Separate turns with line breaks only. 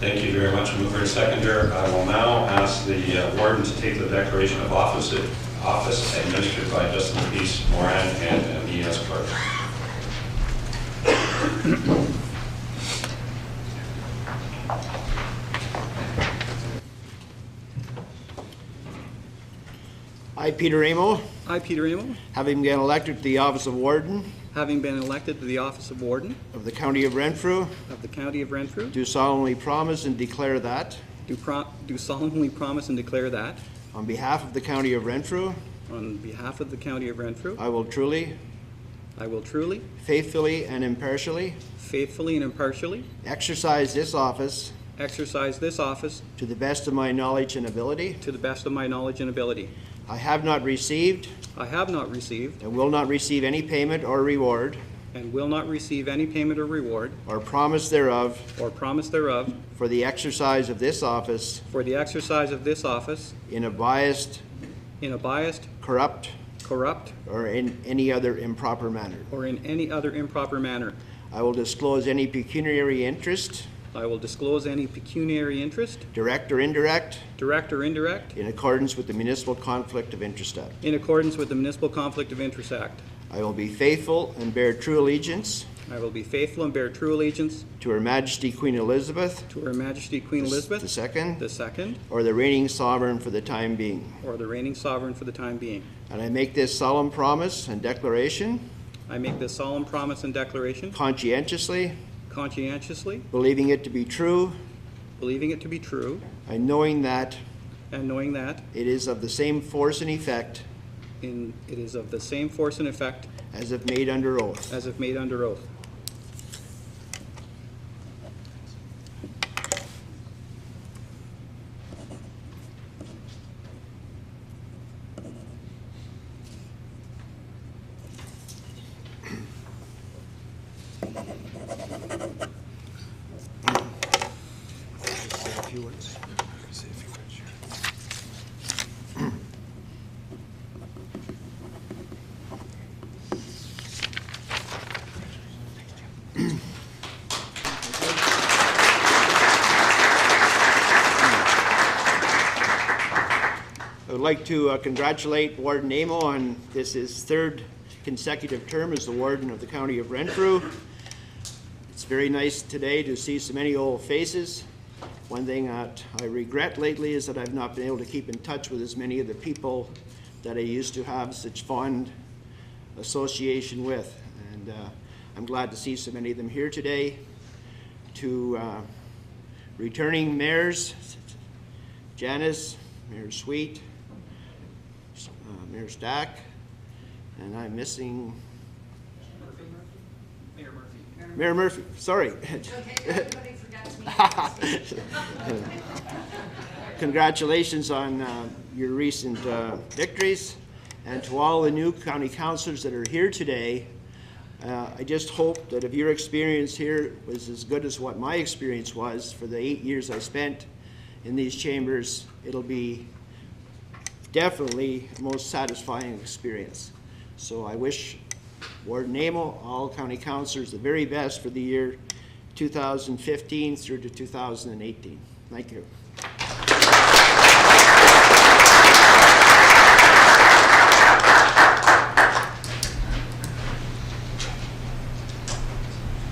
Thank you very much, mover and seconder. I will now ask the uh, warden to take the declaration of office, office administered by Justin Peace, Moran, and me as clerk.
I, Peter Amo,
I, Peter Amo,
having been elected to the office of Warden
having been elected to the office of Warden
of the County of Renfrew,
of the County of Renfrew,
do solemnly promise and declare that,
do pro- do solemnly promise and declare that,
on behalf of the County of Renfrew,
on behalf of the County of Renfrew,
I will truly,
I will truly,
faithfully, and impartially
faithfully, and impartially
exercise this office
exercise this office
to the best of my knowledge and ability.
to the best of my knowledge and ability.
I have not received
I have not received
and will not receive any payment or reward
and will not receive any payment or reward
or promise thereof
or promise thereof
for the exercise of this office
for the exercise of this office
in a biased,
in a biased,
corrupt,
corrupt,
or in any other improper manner.
or in any other improper manner.
I will disclose any pecuniary interest,
I will disclose any pecuniary interest,
direct or indirect,
direct or indirect,
in accordance with the Municipal Conflict of Interest Act.
In accordance with the Municipal Conflict of Interest Act,
I will be faithful and bear true allegiance
I will be faithful and bear true allegiance
to Her Majesty Queen Elizabeth
to Her Majesty Queen Elizabeth
II,
II,
or the reigning sovereign for the time being.
or the reigning sovereign for the time being.
And I make this solemn promise and declaration
I make this solemn promise and declaration
conscientiously,
conscientiously,
believing it to be true,
believing it to be true,
and knowing that
and knowing that
it is of the same force and effect
in- it is of the same force and effect
as if made under oath.
as if made under oath.
I would like to uh, congratulate Warden Amo on this his third consecutive term as the warden of the county of Renfrew. It's very nice today to see so many old faces. One thing that I regret lately is that I've not been able to keep in touch with as many of the people that I used to have such fond association with. And uh, I'm glad to see so many of them here today. To uh, returning mayors, Janice, Mayor Sweet, uh, Mayor Stack, and I'm missing
Mayor Murphy.
Mayor Murphy, sorry.
Okay, everybody forgot to me.
Congratulations on uh, your recent uh, victories, and to all the new county councilors that are here today. uh, I just hope that if your experience here was as good as what my experience was for the eight years I spent in these chambers, it'll be definitely the most satisfying experience. So I wish Warden Amo, all county councilors, the very best for the year 2015 through to 2018. Thank you.